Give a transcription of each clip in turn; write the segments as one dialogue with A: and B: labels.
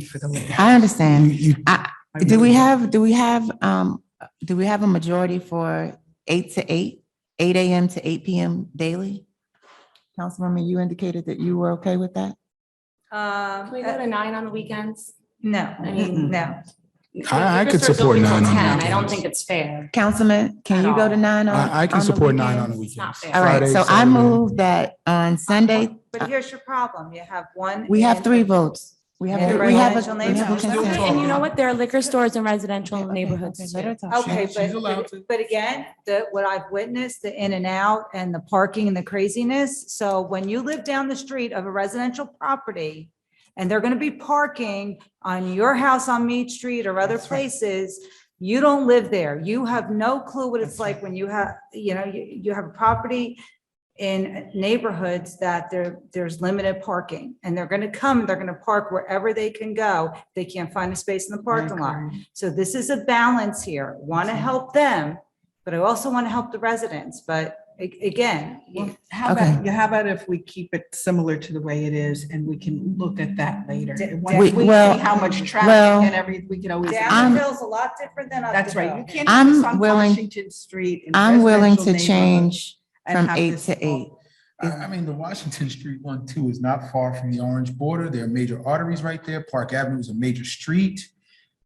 A: speak for the mayor.
B: I understand.
C: You- you-
B: I, do we have, do we have, um, do we have a majority for eight to eight, eight AM to eight PM daily? Councilwoman, you indicated that you were okay with that?
D: Um,
E: Can we go to nine on the weekends?
D: no,
E: I mean-
D: no.
C: I- I
E: If
C: could
E: it's
C: support
E: open till
C: nine on
E: 10, I don't
C: weekends.
E: think it's fair.
B: Councilman, can
E: At
B: you go to
E: all.
B: nine on?
C: I, I can
B: Uh, on the
C: support nine on the
B: weekends?
C: weekends.
E: not fair.
B: All right,
C: Friday,
B: so I
C: Saturday.
B: move that on Sunday,
D: But here's your problem. You have one.
B: we have
D: in-
B: three votes. We have,
D: Yeah,
B: we have, a-
D: residential
B: we have a
D: neighborhoods.
B: consent.
D: Okay,
E: And you know what? There are liquor stores in residential
B: Okay, okay,
E: neighborhoods
B: let her
E: too.
B: talk.
D: Okay,
C: She- she's allowed
D: but,
C: to.
D: but again, the, what I've witnessed, the in and out and the parking and the craziness. So when you live down the street of a residential property and they're going to be parking on your house on Mead Street or other places, you don't live there. You have no clue what it's like when you have, you know, you, you have a property in neighborhoods that there, there's limited parking and they're going to come, they're going to park wherever they can go. They can't find a space in the parking lot. So this is a balance here. Want to help them, but I also want to help the residents. But a- again,
A: Well, How
B: Okay.
A: about, yeah, how about if we keep it similar to the way it is and we can look at that later?
D: D-
A: Once
B: We-
A: we see
B: well,
A: how much traffic
B: well,
A: and every, we can always.
B: I'm-
D: Downhill's a lot different than up
A: Um, That's right. You
D: the
A: can't.
B: I'm
A: focus on
B: willing-
A: Washington Street. and
B: I'm willing
A: residential
B: to change
A: neighborhoods and
B: from
A: have
B: eight
A: this
B: to
A: all-
B: eight.
C: I, I mean, the Washington Street one too is not far from the orange border. There are major arteries right there. Park Avenue is a major street.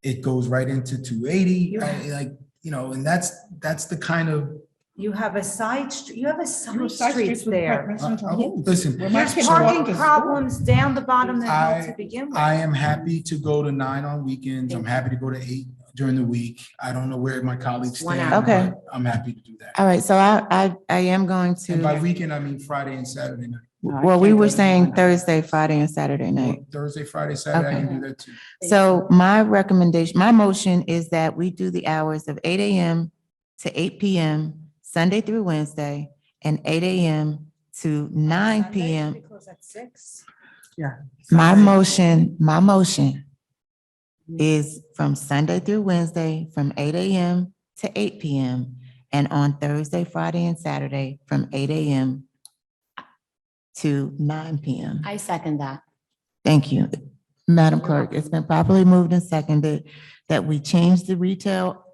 C: It goes right into two eighty, like, you know, and that's, that's the kind of.
D: You have a side, str- you have a side
A: Side
D: streets
A: streets with
D: there.
C: I-
A: residential
C: I-
A: homes.
C: Listen,
A: Where my
D: There's
A: kids
C: so
A: walk
D: parking
A: to school.
D: problems down the bottom of the hill
C: I-
D: to begin with.
C: I am happy to go to nine on weekends. I'm happy to go to eight during the week. I don't know where my colleagues
E: One
C: stand.
E: hour.
B: Okay.
C: but I'm happy to do that.
B: All right, so I, I, I am going
C: And by
B: to,
C: weekend, I mean Friday and Saturday night.
A: No, I
B: well, we
A: can't
B: were
A: go to
B: saying
A: nine.
B: Thursday, Friday and Saturday night.
C: Or Thursday, Friday, Saturday, I can do that too.
B: So my recommendation, my motion is that we do the hours of eight AM to eight PM, Sunday through Wednesday, and eight AM to nine
D: Sunday,
B: PM.
D: we close at six.
B: My motion, my motion is from Sunday through Wednesday, from eight AM to eight PM, and on Thursday, Friday, and Saturday, from eight AM to nine PM.
E: I second that.
B: Thank you. Madam Clerk, it's been properly moved and seconded that we change the retail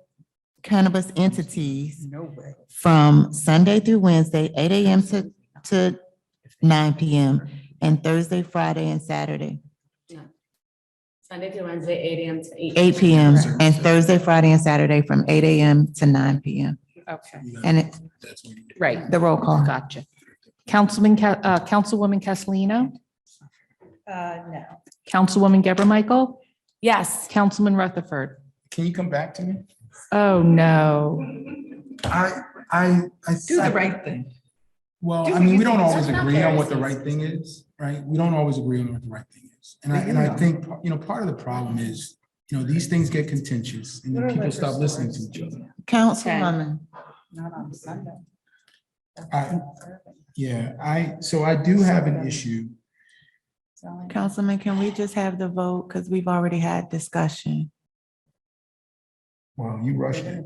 B: cannabis entities
A: No way.
B: from Sunday through Wednesday, eight AM to, to nine PM, and Thursday, Friday, and Saturday,
E: Sunday through Wednesday, eight AM to eight.
B: eight PM, and Thursday, Friday, and Saturday from eight AM to nine PM.
F: Okay,
C: You know,
B: And it-
C: that's what you do.
F: right,
B: the roll call.
F: gotcha. Councilman, Ca- uh, Councilwoman Castellino,
D: Uh, no.
F: Councilwoman Geber Michael,
E: Yes.
F: Councilman Rutherford.
C: Can you come back to me?
F: Oh, no.
C: I, I, I.
A: Do the right thing.
C: Well,
A: Do
C: I
A: what
C: mean,
A: you
C: we don't
A: think is
C: always
E: right.
C: agree on what the
E: Comparisons.
C: right thing is, right? We don't always agree on what the right thing is. And I, and I think, you know, part of the problem is, you know, these things get contentious and then people stop listening to each other.
B: Councilwoman,
A: Not on Sunday.
C: I, yeah, I, so I do have an issue.
B: Councilman, can we just have the vote? Because we've already had discussion.
C: Wow, you rushed it.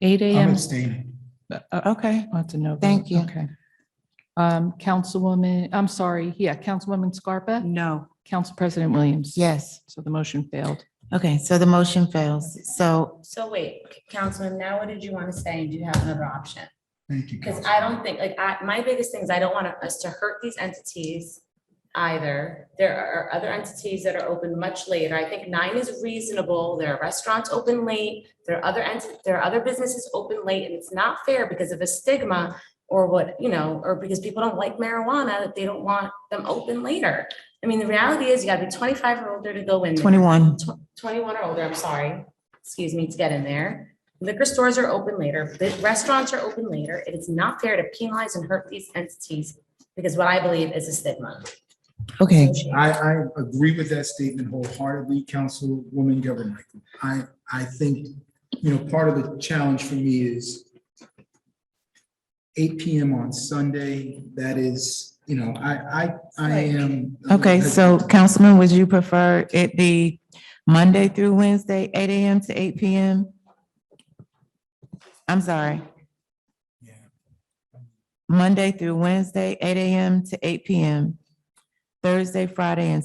F: Eight
C: I'm
F: AM.
C: abstaining.
F: Uh,
B: Okay,
F: That's a no. vote,
B: Thank you.
F: Okay. Um, Councilwoman, I'm sorry, yeah, Councilwoman Scarpa,
A: No.
F: Council President Williams.
B: yes.
F: So the motion failed.
B: Okay, so the motion fails. So
E: So wait, Councilman, now what did you want to say? Do you have another option?
C: Thank you.
E: Because
C: Council.
E: I don't think, like, I, my biggest thing is I don't want us to hurt these entities either. There are other entities that are open much later. I think nine is reasonable. There are restaurants open late. There are other ent, there are other businesses open late and it's not fair because of a stigma or what, you know, or because people don't like marijuana, that they don't want them open later. I mean, the reality is you gotta be twenty-five or older to go in. there.
B: twenty-one.
E: Tw- 21 or older, I'm sorry, excuse me, to get in there. Liquor stores are open later, the restaurants are open later. It is not fair to penalize and hurt these entities because what I believe is a stigma.
B: Okay,
C: I, I agree with that statement wholeheartedly, Councilwoman Governor Michael. I, I think, you know, part of the challenge for me is eight PM on Sunday, that is, you know, I, I, I am.
B: okay, so Councilman, would you prefer it be Monday through Wednesday, eight AM to eight PM? I'm sorry,
C: Yeah.
B: Monday through Wednesday, eight AM to eight PM. Thursday, Friday, and